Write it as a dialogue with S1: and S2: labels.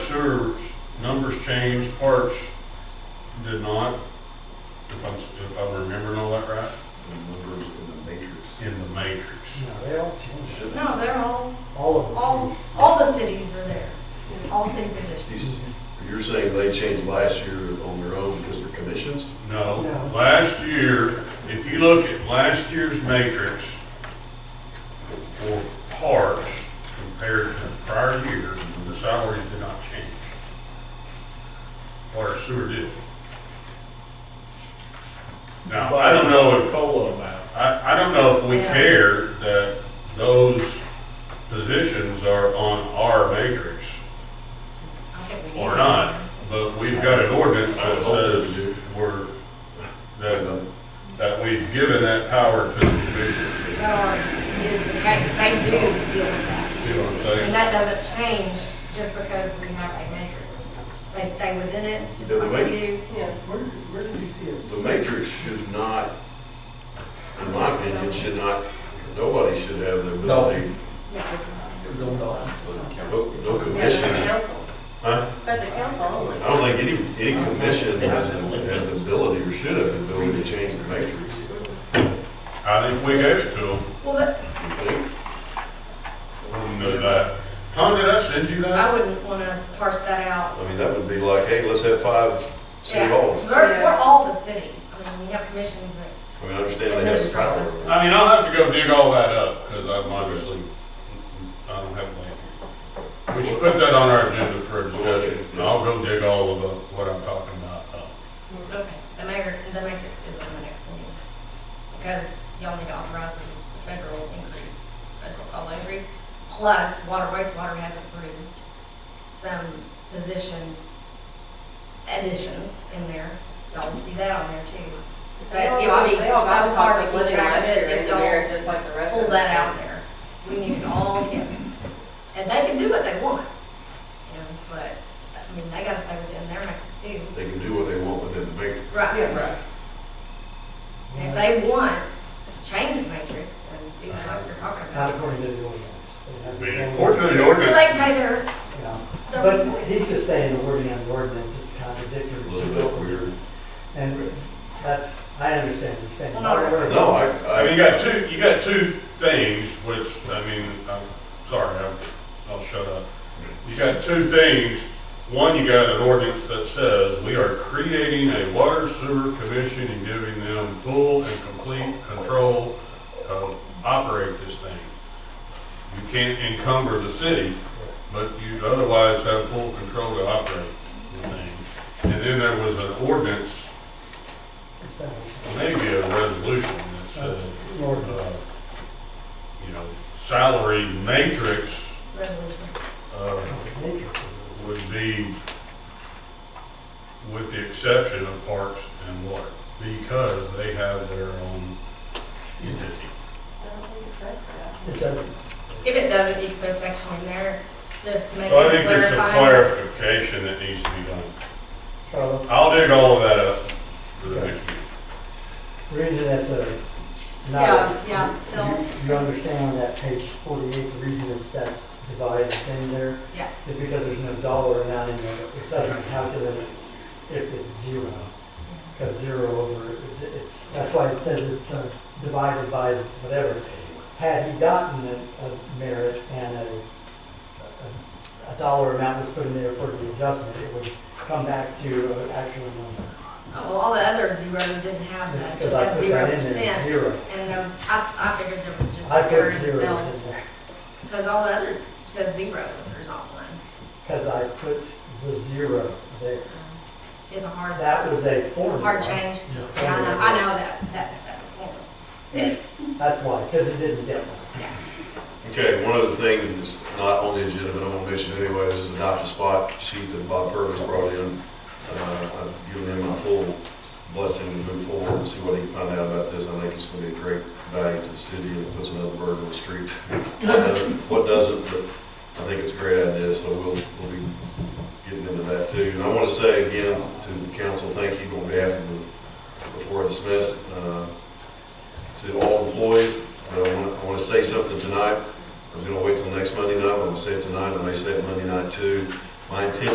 S1: sure numbers changed, parts did not, if I'm, if I'm remembering all that right,
S2: The numbers in the matrix.
S1: in the matrix.
S3: No, they all changed it.
S4: No, they're all,
S3: All of them.
S4: all, all the cities are there, all city positions.
S2: You s- You're saying they changed last year on their own because of commissions?
S1: No,
S3: No.
S1: last year, if you look at last year's matrix for parts compared to the prior year, the salaries did not change. Water sewer did. Now, I don't know if
S5: COLA amount.
S1: I, I don't know if we
S4: Yeah.
S1: care that those positions are on our matrix
S4: I think we need
S1: or
S4: to-
S1: not, but we've got an ordinance that says we're, that, that we've given that power to the commission.
S4: That is the case, they do deal with that.
S1: See what I'm
S4: And
S1: saying?
S4: that doesn't change just because we have a matrix. They stay within it, just
S2: Yeah,
S4: like
S2: wait.
S4: we do.
S3: Yeah, where, where did you see it?
S2: The matrix should not, in my opinion, should not, nobody should have the ability, no, no commission. Huh?
S6: But the council
S2: I
S6: only.
S2: don't think any, any commission has the, has the ability or should have the ability to change the matrix.
S1: I think we gave it to them.
S4: Well, but
S2: You think?
S1: We know that. Tom, did I send you that?
S4: I wouldn't want us to parse that out.
S2: I mean, that would be like, hey, let's have five city
S4: Yeah.
S2: halls.
S4: We're, we're all the city. I mean, we have commissions that
S2: I mean, I understand they have the power.
S1: I mean, I'll have to go dig all that up, because I'm obviously, I don't have land. We should put that on our agenda for a discussion, and I'll go dig all of the, what I'm talking about up.
S4: Okay, the mayor, the matrix is on the next meeting, because y'all need to authorize the federal increase, federal COLA increase, plus water, wastewater has approved some position additions in there, y'all will see that on there too. But it would be
S6: They all got
S4: so
S6: the
S4: hard to
S6: cost of
S4: keep
S6: living
S4: track
S6: last
S4: of
S6: year
S4: it
S6: in
S4: if
S6: the mayor,
S4: y'all
S6: just like the rest of us.
S4: pull that out there. We need it all in, and they can do what they want, you know, but, I mean, they gotta stay within their maxes too.
S2: They can do what they want within the matrix.
S4: Right.
S6: Yeah, right.
S4: If they want to change the matrix and do
S6: Uh-huh.
S4: what you're talking
S6: Uh,
S3: Not
S4: about,
S3: according to the ordinance. They have their own-
S1: According to the
S4: they
S1: ordinance,
S4: pay their,
S3: Yeah.
S4: their.
S3: But he's just saying the wording on the ordinance is contradictory
S2: A
S3: to
S2: little
S3: what
S2: bit
S3: we're,
S2: weird.
S3: and that's, I understand what you're saying.
S4: Well, no,
S3: Word-
S2: No, I,
S1: I mean,
S2: I,
S1: you got two, you got two things, which, I mean, I'm sorry, I'm, I'll shut up. You got two things. One, you got an ordinance that says we are creating a water sewer commission and giving them full and complete control to operate this thing. You can't encumber the city, but you otherwise have full control to operate the thing. And then there was an ordinance,
S3: it's, uh,
S1: maybe a resolution that
S3: That's
S1: says
S3: an ordinance.
S1: you know, salary matrix, uh,
S3: Matrix is
S1: would be with the exception of parks and water, because they have their own entity.
S6: I don't think it says that.
S3: a- It doesn't.
S4: If it doesn't, you can put a section in there, just make it
S1: So I think there's some
S4: clarify.
S1: clarification that needs to be done.
S3: Charlotte,
S1: I'll dig all of that up for the next meeting.
S3: the reason that's a, not.
S4: Yeah, yeah, so,
S3: You you understand on that page forty-eight, the reason it's that's divided in there
S4: yeah,
S3: is because there's no dollar amount in there. It doesn't calculate it if it's zero, because zero over, it's- it's, that's why it says it's uh, divided by whatever. Had he gotten a a merit and a, a- a dollar amount was put in there for the adjustment, it would come back to an actual number.
S4: Oh, well, all the other zeros didn't have
S3: It's
S4: that,
S3: because
S4: just
S3: I
S4: had
S3: put that
S4: zero
S3: in there,
S4: percent.
S3: zero.
S4: And um, I, I figured there was just
S3: I
S4: a
S3: put
S4: word
S3: zeros
S4: itself,
S3: in there,
S4: because all the other says zero, but there's not one.
S3: because I put the zero there.
S4: Um, It's a hard,
S3: That was a formula.
S4: hard Uh, change. Yeah, I know, I know that, that, that's horrible.
S3: That's why, because it didn't get one.
S2: okay, one other thing that's not on the agenda, but I'm gonna mention anyway, this is adopt a spot sheet that Bob Purvis brought in. Uh, I've given him my full blessing to move forward and see what he can find out about this. I think it's gonna be a great value to the city and puts another burden on the street. What doesn't- What doesn't, but I think it's a great idea, so we'll, we'll be getting into that too. And I wanna say again to the council, thank you on behalf of the, before I dismiss, uh, to all employees. I wanna- I want to say something tonight. I was going to wait till next Monday night, but I'm going to say it tonight, I may say it Monday night too. My intention